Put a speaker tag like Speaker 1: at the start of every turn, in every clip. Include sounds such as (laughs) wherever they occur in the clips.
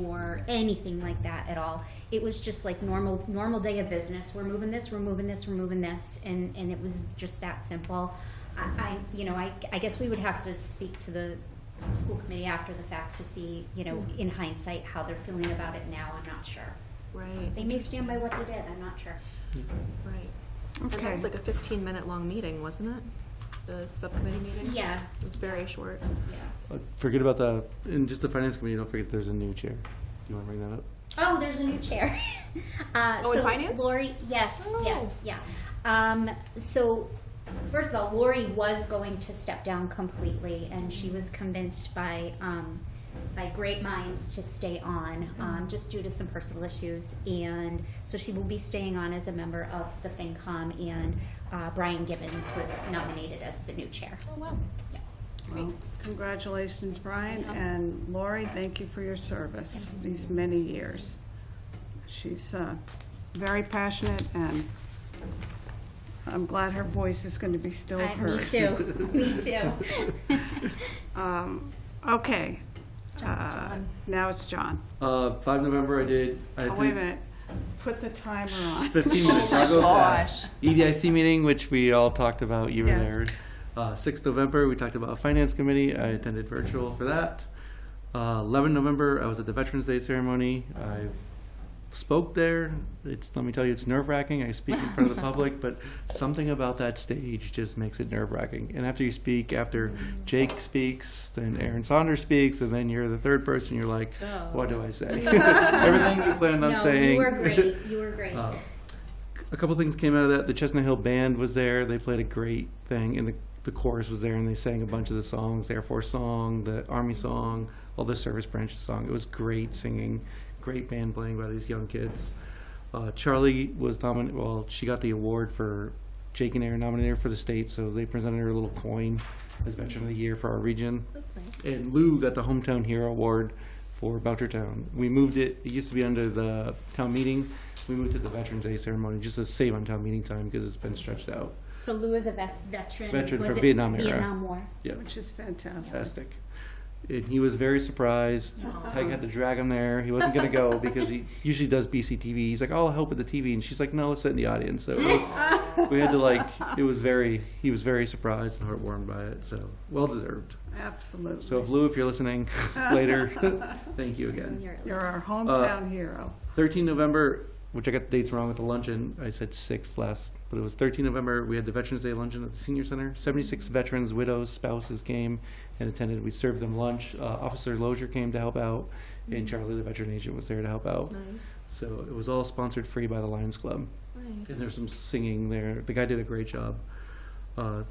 Speaker 1: or anything like that at all. It was just like normal normal day of business. We're moving this, we're moving this, we're moving this, and and it was just that simple. I, I you know I I guess we would have to speak to the school committee after the fact to see you know in hindsight how they're feeling about it now. I'm not sure.
Speaker 2: Right,
Speaker 1: They may stand by what they did. I'm not sure.
Speaker 2: right. And that
Speaker 3: Okay.
Speaker 2: was like a fifteen minute long meeting, wasn't it? The subcommittee meeting?
Speaker 1: Yeah.
Speaker 2: It was very short.
Speaker 1: Yeah.
Speaker 4: Uh, Forget about the, and just the finance committee, don't forget there's a new chair. You wanna bring that up?
Speaker 1: Oh, there's a new chair. (laughs) uh,
Speaker 2: Oh, in
Speaker 1: so
Speaker 2: finance?
Speaker 1: Lori, yes,
Speaker 2: Oh.
Speaker 1: yes, yeah. Um, so, first of all, Lori was going to step down completely, and she was convinced by um, by great minds to stay on,
Speaker 2: Mm-hmm.
Speaker 1: um, just due to some personal issues. And so she will be staying on as a member of the FinCom, and uh, Brian Gibbons was nominated as the new chair.
Speaker 2: Oh, wow.
Speaker 1: Yeah.
Speaker 3: Well, Congratulations, Brian, and Lori, thank you for your service these many years. She's uh, very passionate, and I'm glad her voice is going to be still
Speaker 1: I- me
Speaker 4: (laughs)
Speaker 3: heard.
Speaker 1: too. me too.
Speaker 3: Um, Okay. Uh, Now it's John.
Speaker 4: Uh, five November, I did. I
Speaker 3: Oh,
Speaker 4: did
Speaker 3: wait a minute. Put the timer
Speaker 4: (laughs)
Speaker 3: on.
Speaker 4: Fifteen
Speaker 1: Oh
Speaker 4: minutes. I'll go fast. E EDIC meeting, which we all talked about. You were
Speaker 3: Yes.
Speaker 4: there. Uh, sixth November, we talked about finance committee. I attended virtual for that. Uh, Eleven November, I was at the Veterans Day ceremony. I spoke there. It's let me tell you, it's nerve wracking. I speak in
Speaker 1: (laughs)
Speaker 4: front of the public, but something about that stage just makes it nerve wracking. And after you speak, after Jake speaks, then Aaron Saunders speaks, and then you're the third person. You're like, what do
Speaker 1: (laughs)
Speaker 4: I say? Everything you planned on
Speaker 1: Oh. no,
Speaker 4: saying.
Speaker 1: you were great. You were great.
Speaker 4: Uh, a couple things came out of that. The Chestnut Hill Band was there. They played a great thing, and the, the chorus was there, and they sang a bunch of the songs, the Air Force song, the Army song, all the Service Branch song. It was great singing, great band playing by these young kids. Uh, Charlie was nominated. Well, she got the award for Jake and Aaron nominated her for the state, so they presented her a little coin as Veteran of the Year for our region.
Speaker 1: That's nice.
Speaker 4: And Lou got the Hometown Hero Award for Belchertown. We moved it, it used to be under the town meeting. We moved it to the Veterans Day ceremony just to save on town meeting time because it's been stretched out.
Speaker 1: So Lou is a vet- veteran.
Speaker 4: Veteran
Speaker 1: was
Speaker 4: from
Speaker 1: it
Speaker 4: Vietnam era.
Speaker 1: Vietnam War.
Speaker 4: Yeah,
Speaker 3: Which is fantastic.
Speaker 4: fantastic. And he was very surprised. Peg had to drag him there. He wasn't going to go because he usually does BCTV. He's like, "Oh, I'll help with the TV," and she's like, "No, let's sit in the audience." So we had to like. It was very. He was very surprised and heartwarmed by it. So well deserved. So
Speaker 3: Absolutely.
Speaker 4: if Lou, if you're listening (laughs) later, thank you again.
Speaker 1: You're-
Speaker 3: You're
Speaker 4: uh,
Speaker 3: our hometown hero.
Speaker 4: 13 November, which I got the dates wrong with the luncheon. I said 6 last, but it was 13 November. We had the Veterans Day luncheon at the Senior Center. 76 veterans, widows, spouses came and attended. We served them lunch. Uh, Officer Lozier came to help out, and Charlie, the veteran agent, was there to help
Speaker 2: That's
Speaker 4: out.
Speaker 2: nice,
Speaker 4: So it was all sponsored free by the Lions Club. And
Speaker 2: nice.
Speaker 4: there's some singing there. The guy did a great job. A uh,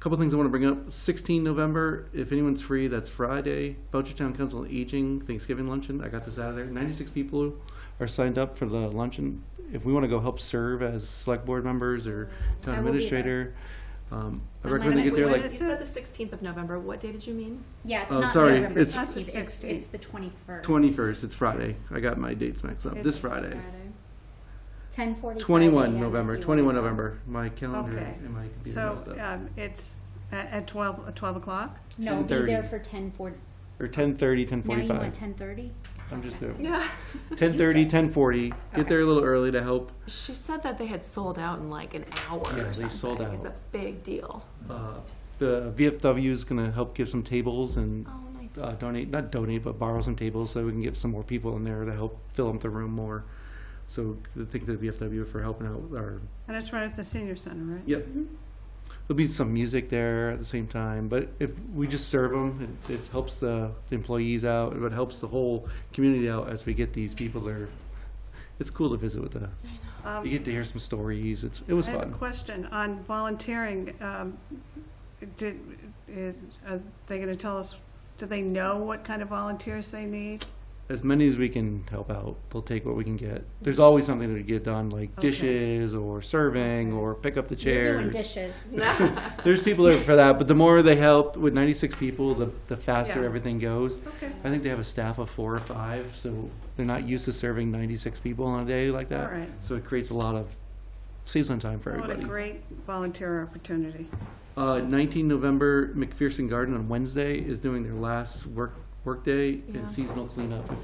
Speaker 4: couple things I want to bring up. 16 November, if anyone's free, that's Friday. Belchertown Council on Aging Thanksgiving luncheon. I got this out of there. 96 people are signed up for the luncheon. If we want to go help serve as select board members or town
Speaker 1: I will be
Speaker 4: administrator, um, I
Speaker 1: I'm
Speaker 4: recommend they
Speaker 1: like-
Speaker 4: get there
Speaker 3: Wait,
Speaker 4: like
Speaker 2: You said the sixteenth of November. What day did you mean?
Speaker 1: Yeah, it's
Speaker 4: Oh,
Speaker 1: not
Speaker 4: sorry,
Speaker 1: November
Speaker 4: it's-
Speaker 1: 16th,
Speaker 3: That's the
Speaker 1: It's,
Speaker 3: 16th.
Speaker 1: it's the 21st.
Speaker 4: 21st. It's Friday. I got my dates mixed up. This
Speaker 3: It's
Speaker 4: Friday.
Speaker 1: 10:45
Speaker 4: 21
Speaker 1: a.m.
Speaker 4: November.
Speaker 1: You
Speaker 4: 21
Speaker 1: will-
Speaker 4: November. My calendar
Speaker 3: Okay.
Speaker 4: and my computer
Speaker 3: So
Speaker 4: messed up.
Speaker 3: um, it's at at 12, at 12 o'clock?
Speaker 1: No, be
Speaker 4: 10:30.
Speaker 1: there for 10:40.
Speaker 4: Or 10:30,
Speaker 1: Now you
Speaker 4: 10:45.
Speaker 1: want 10:30? (laughs)
Speaker 4: I'm just there.
Speaker 2: Yeah.
Speaker 4: 10:30, 10:40. Get
Speaker 1: Okay.
Speaker 4: there a little early to help.
Speaker 2: She said that they had sold out in like an hour
Speaker 4: Yeah,
Speaker 2: or
Speaker 4: they
Speaker 2: something.
Speaker 4: sold
Speaker 2: It's a
Speaker 4: out.
Speaker 2: big deal.
Speaker 4: Uh, the VFW is going to help give some tables and
Speaker 2: Oh, nice.
Speaker 4: uh, donate, not donate, but borrow some tables so we can get some more people in there to help fill up the room more. So thank the VFW for helping out. with Our
Speaker 3: And it's right at the senior center, right?
Speaker 4: yep. There'll be some music there at the same time, but if we just serve them, it, it helps the, the employees out, but it helps the whole community out as we get these people there. It's cool to visit with the.
Speaker 3: Um,
Speaker 4: You get to hear some stories. It's it was
Speaker 3: I have a
Speaker 4: fun.
Speaker 3: question on volunteering. Um, Did, is- are they going to tell us, do they know what kind of volunteers they need?
Speaker 4: as many as we can help out. They'll take what we can get. There's always something to get done, like
Speaker 3: Okay.
Speaker 4: dishes or serving or pick up the
Speaker 1: You're doing
Speaker 4: chairs.
Speaker 1: dishes.
Speaker 4: There's people there for that, but the more they help with 96 people, the, the faster
Speaker 3: Yeah.
Speaker 4: everything goes.
Speaker 3: Okay,
Speaker 4: I think they have a staff of four or five, so they're not used to serving 96 people on a day like
Speaker 3: all
Speaker 4: that.
Speaker 3: right.
Speaker 4: So it creates a lot of saves on time for
Speaker 3: What a
Speaker 4: everybody.
Speaker 3: great volunteer opportunity.
Speaker 4: Uh, 19 November, McPherson Garden on Wednesday is doing their last work work day
Speaker 2: Yeah.
Speaker 4: and seasonal cleanup. If